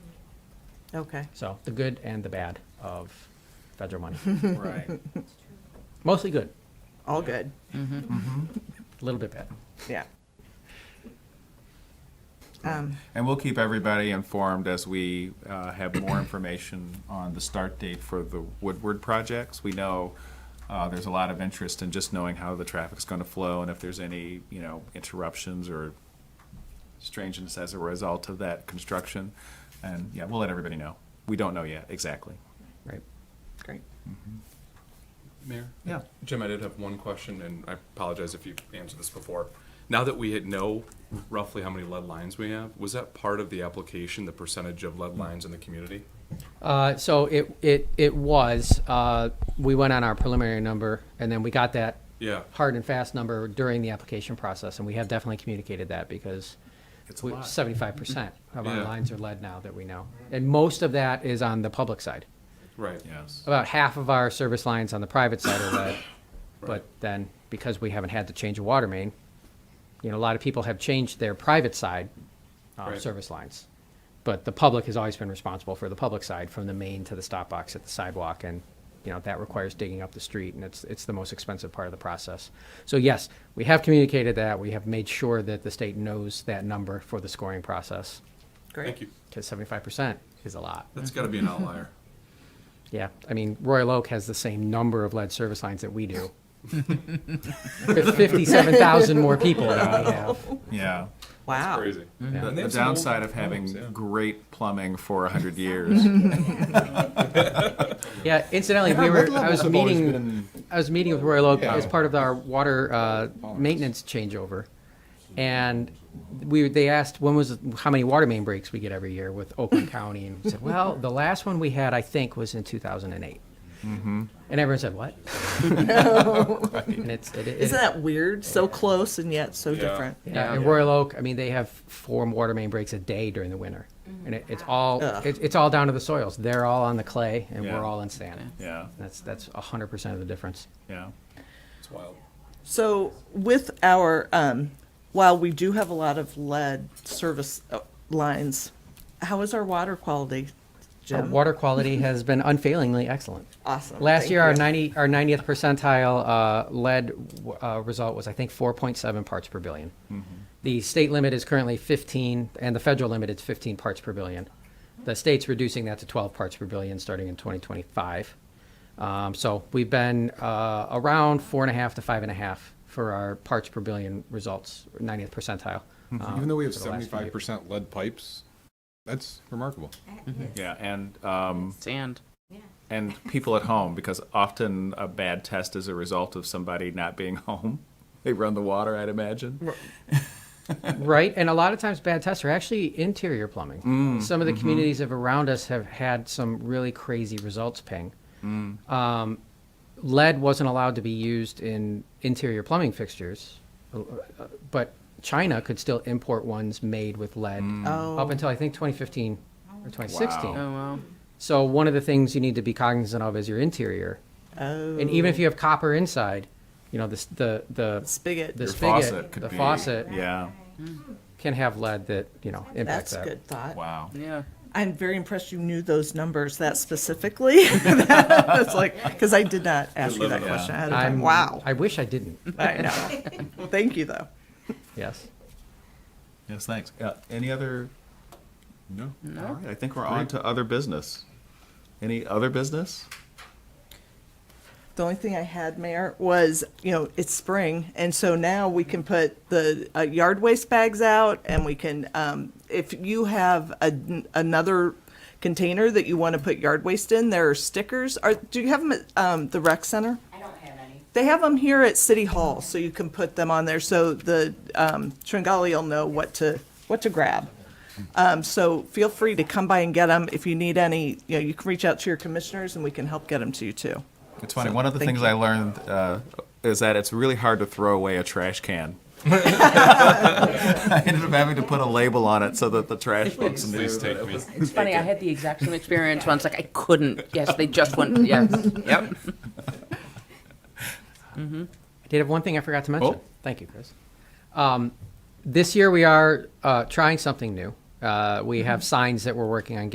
Okay. So the good and the bad of federal money. Right. Mostly good, All good. a little bit bad. Yeah. Um, And we'll keep everybody informed as we uh, have more information on the start date for the Woodward projects. We know uh, there's a lot of interest in just knowing how the traffic's going to flow and if there's any, you know, interruptions or strangeness as a result of that construction. And, yeah, we'll let everybody know. We don't know yet, exactly. Right. great. Mayor? Yeah. Jim, I did have one question, and I apologize if you answered this before. Now that we had know roughly how many lead lines we have, was that part of the application, the percentage of lead lines in the community? Uh, so it, it, it was, uh, we went on our preliminary number and then we got that Yeah. hard and fast number during the application process. And we have definitely communicated that because It's a we- lot. 75% of our Yeah. lines are lead now that we know. And most of that is on the public side. Right. Yes. About half of our service lines on the private side are lead. But then, because we haven't had to change a water main, you know, a lot of people have changed their private side uh, Right. service lines. But the public has always been responsible for the public side, from the main to the stop box at the sidewalk. And, you know, that requires digging up the street, and it's, it's the most expensive part of the process. So yes, we have communicated that. We have made sure that the state knows that number for the scoring process, Great. Thank you. because 75% is a lot. That's gotta be an outlier. Yeah, I mean, Royal Oak has the same number of lead service lines that we do. Fifty-seven thousand more people than we have. Yeah. Wow. Crazy. Yeah. The And the they have some old downside of having homes, yeah. great plumbing for 100 years. Yeah, incidentally, we were, I was meeting, I was meeting with Royal Oak Yeah. as part of our water, uh, maintenance changeover. And we, they asked, when was, how many water main breaks we get every year with Oakland County? And we said, well, the last one we had, I think, was in two thousand and eight. And everyone said, what? And it's, it, it. Isn't that weird? So close and yet so Yeah. different. Yeah, and Royal Oak, I mean, they have four water main breaks a day during the winter, and it, it's all Ugh. it, it's all down to the soils. They're all on the clay, and Yeah. we're all in sand. Yeah, That's that's hundred percent of the difference. yeah. It's wild. So with our, um, while we do have a lot of lead service uh, lines, how is our water quality, Our Jim? water quality has been unfailingly excellent. Awesome. Last Thank year, our you. ninety our ninetieth percentile uh, lead uh, result was I think four point seven parts per 1000000000 Mm-hmm. The state limit is currently fifteen, and the federal limit is fifteen parts per billion. The state's reducing that to twelve parts per billion starting in twenty twenty five. Um, so we've been uh, around four and a half to five and a half for our parts per billion results, ninetieth percentile. Mm-hmm. um, Even though we have for the last few years. seventy-five percent lead pipes, that's remarkable. Yeah, and, um, Sand. and people at home, because often a bad test is a result of somebody not being home. They run the water, I'd imagine. Right, and a lot of times bad tests are actually interior plumbing. some of the communities of around us have had some really crazy results ping. Um, lead wasn't allowed to be used in interior plumbing fixtures, uh, but China could still import ones made with lead Oh. up until I think 2015 or 2016. Wow. Oh, wow. So one of the things you need to be cognizant of is your interior, Oh, and even if you have copper inside, you know the s- the the spigot. the Your spigot, faucet could the be- faucet Yeah, can have lead that you know That's impacts that. a good thought. wow. Yeah. I'm very impressed you knew those numbers that specifically. That's like, because I did not ask you that Yeah. question ahead of time. I'm, Wow. I wish I didn't. I know. Thank you, though. Yes. Yes, thanks. Uh, Any other? No. All right, I think we're on to other business. Any other business? The only thing I had, Mayor, was, you know, it's spring, and so now we can put the uh, yard waste bags out, and we can, um, if you have a, another container that you want to put yard waste in, there are stickers. Are, do you have them at, um, the rec center? I don't have any. They have them here at City Hall, so you can put them on there, so the, um, Tringali will know what to, what to grab. Um, so feel free to come by and get them. If you need any, you know, you can reach out to your commissioners, and we can help get them to you, too. It's funny, one of the thank things you. I learned uh, is that it's really hard to throw away a trash can. I ended up having to put a label on it so that the trash folks knew. Please that take it me. was- It's funny. I had the exact same experience once. Like I couldn't. Yes, they just went. Yes. Yep. I did have one thing I forgot to mention. Oh. Thank you, Chris. Um, this year we are uh, trying something new. Uh, we have signs that we're working on